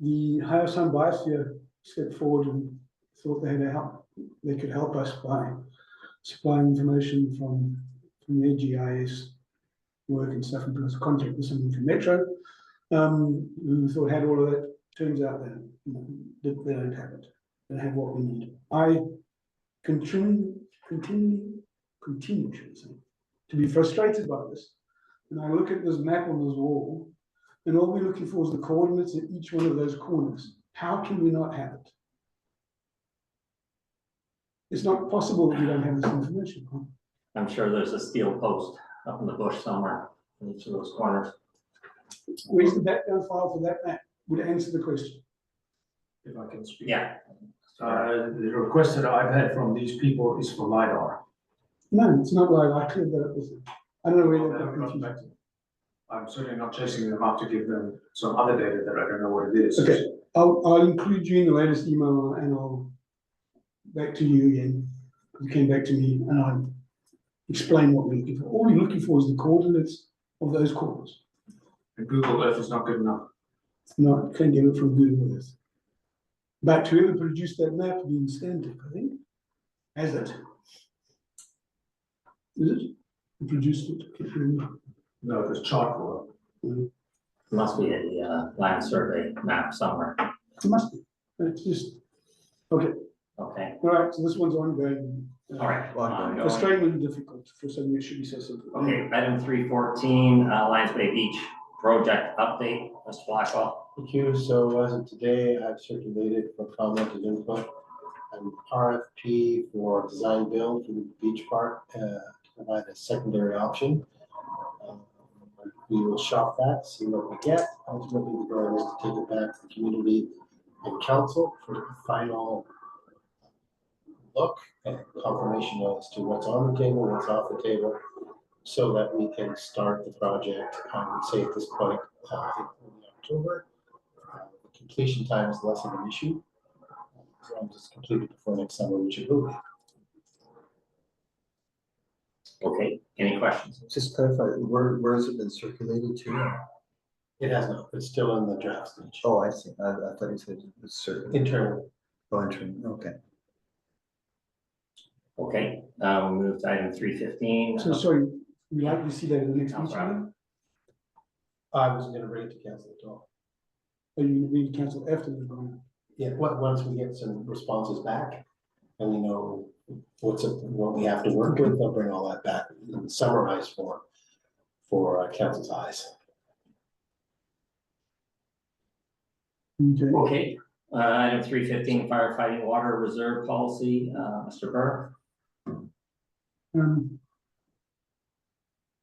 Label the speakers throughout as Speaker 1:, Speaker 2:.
Speaker 1: the hire Sun Biosphere stepped forward and thought they had a help, they could help us by supplying information from, from their GIS work and stuff, and put us in contact with someone from Metro, um, who thought had all of that, turns out that, you know, that they don't have it, they don't have what we need. I continue, continue, continue, should I say, to be frustrated by this. And I look at this map on this wall, and all we're looking for is the coordinates at each one of those corners. How can we not have it? It's not possible that we don't have this information. huh?
Speaker 2: I'm sure there's a steel post up in the bush somewhere in each of those corners.
Speaker 1: Where's the background file for that map? Would answer the question.
Speaker 3: if I can speak.
Speaker 2: Yeah.
Speaker 3: Uh, the request that I've had from these people is for LiDAR.
Speaker 1: No, it's not like I cleared that up with them. I don't know
Speaker 3: They
Speaker 1: where
Speaker 3: haven't
Speaker 1: that got
Speaker 3: gotten
Speaker 1: confused.
Speaker 3: back to me. I'm certainly not chasing them up to give them some other data that I don't know what it is.
Speaker 1: Okay. I'll, I'll include you in the latest email and I'll back to you again. You came back to me and I explain what we're looking for. All you're looking for is the coordinates of those corners.
Speaker 3: And Google Earth is not good enough.
Speaker 1: No, can't get it from Google Earth. But whoever produced that map, being Stantec, I think, has it. Is it? Who Produced it? Can't remember.
Speaker 3: No, there's charcoal.
Speaker 2: Must be a uh, land survey map somewhere.
Speaker 1: It must be. It's just,
Speaker 2: Okay,
Speaker 1: all right, so this one's ongoing. uh,
Speaker 2: all right. ongoing.
Speaker 1: Frustrating and difficult for something that should be so simple.
Speaker 2: Okay, item three fourteen, uh, Lions Bay Beach project update, Mr. Blackwell.
Speaker 4: Thank you. So as of today, I've circulated for comment and input an RFP for design build for the beach park uh, to provide a secondary option. Um, We will shop that, see what we get. Ultimately, the goal is to take it back to the community and council for the final look and confirmation as to what's on the table, what's off the table, so that we can start the project. I would say at this point, uh, in October. Uh, the completion time is less of an issue. So I'm just completed before next summer, which it will be.
Speaker 2: Okay, any questions?
Speaker 5: Just clarify, where, where has it been circulated to?
Speaker 4: It has not, it's still in the draft stage.
Speaker 5: Oh, I see. I, I thought you said it's circulated.
Speaker 4: Internally,
Speaker 5: Oh, interim, okay.
Speaker 2: Okay, uh, we'll move to item three fifteen.
Speaker 1: So sorry, we like to see that in the next
Speaker 2: No
Speaker 1: meeting.
Speaker 2: problem.
Speaker 4: I wasn't gonna bring it to council at all.
Speaker 1: Or you we cancel after the meeting?
Speaker 4: Yeah, what, once we get some responses back and we know what's, up- what we have to work with, they'll bring all that back in summarized form for uh, council's eyes.
Speaker 1: Okay.
Speaker 2: Okay, uh, item three fifteen, firefighting water reserve policy, uh, Mr. Burr.
Speaker 1: Um,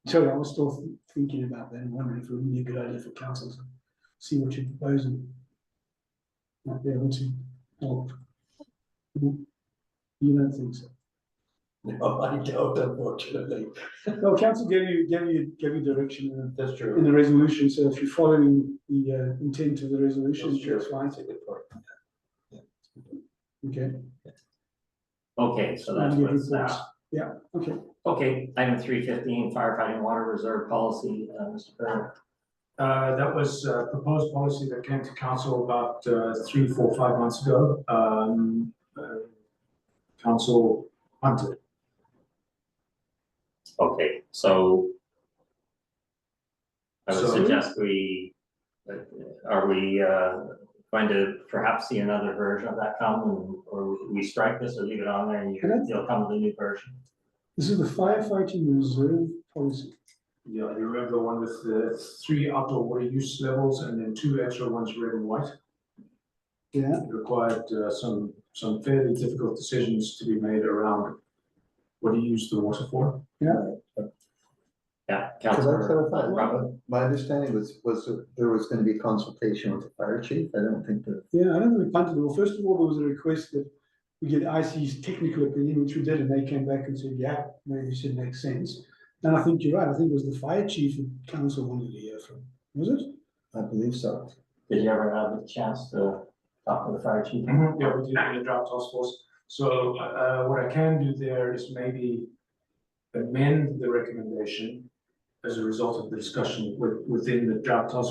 Speaker 1: Sorry, I was still th- thinking about that and wondering if it would be a good idea for councils, to see what you're proposing. Might be able to help. You don't think so?
Speaker 4: No, I don't, unfortunately.
Speaker 1: No, council gave you, gave you, gave you direction in
Speaker 4: That's
Speaker 1: the- in the resolution, so if you're following the uh, intent of the resolution,
Speaker 4: That's true.
Speaker 1: that's fine.
Speaker 4: That's a good point.
Speaker 1: Okay.
Speaker 2: Okay, so that's
Speaker 1: Give reports.
Speaker 2: what's now.
Speaker 1: Yeah, okay.
Speaker 2: Okay, item three fifteen, firefighting water reserve policy, uh, Mr. Burr.
Speaker 3: Uh, that was a proposed policy that came to council about uh, three, four, five months ago. Um, uh, Council hunted.
Speaker 2: Okay, so. I would
Speaker 3: So-
Speaker 2: suggest we, uh, are we, uh, going to perhaps see another version of that come and, or we strike this or leave it on there and
Speaker 1: Can I-
Speaker 2: you, you'll come with a new version?
Speaker 1: This is the firefighting reserve policy.
Speaker 3: Yeah, you remember the one with the three outdoor water use levels and then two extra ones red and white?
Speaker 1: Yeah,
Speaker 3: It required uh, some, some fairly difficult decisions to be made around what do you use the water for?
Speaker 2: Yeah.
Speaker 5: Could I
Speaker 2: Councilor
Speaker 5: clarify?
Speaker 2: Robin?
Speaker 5: My understanding was, was that there was gonna be consultation with the fire chief. I don't think that,
Speaker 1: yeah, I don't think we punted it. Well, first of all, there was a request that we get IC's technical opinion, which we did, and they came back and said, yeah, maybe this should make sense. And I think you're right. I think it was the fire chief that council wanted to hear from, was it?
Speaker 5: I believe so.
Speaker 2: Did you ever have the chance to talk to the fire chief?
Speaker 3: Yeah, we did it in the drought task force. So uh, what I can do there is maybe amend the recommendation as a result of the discussion with, within the drought task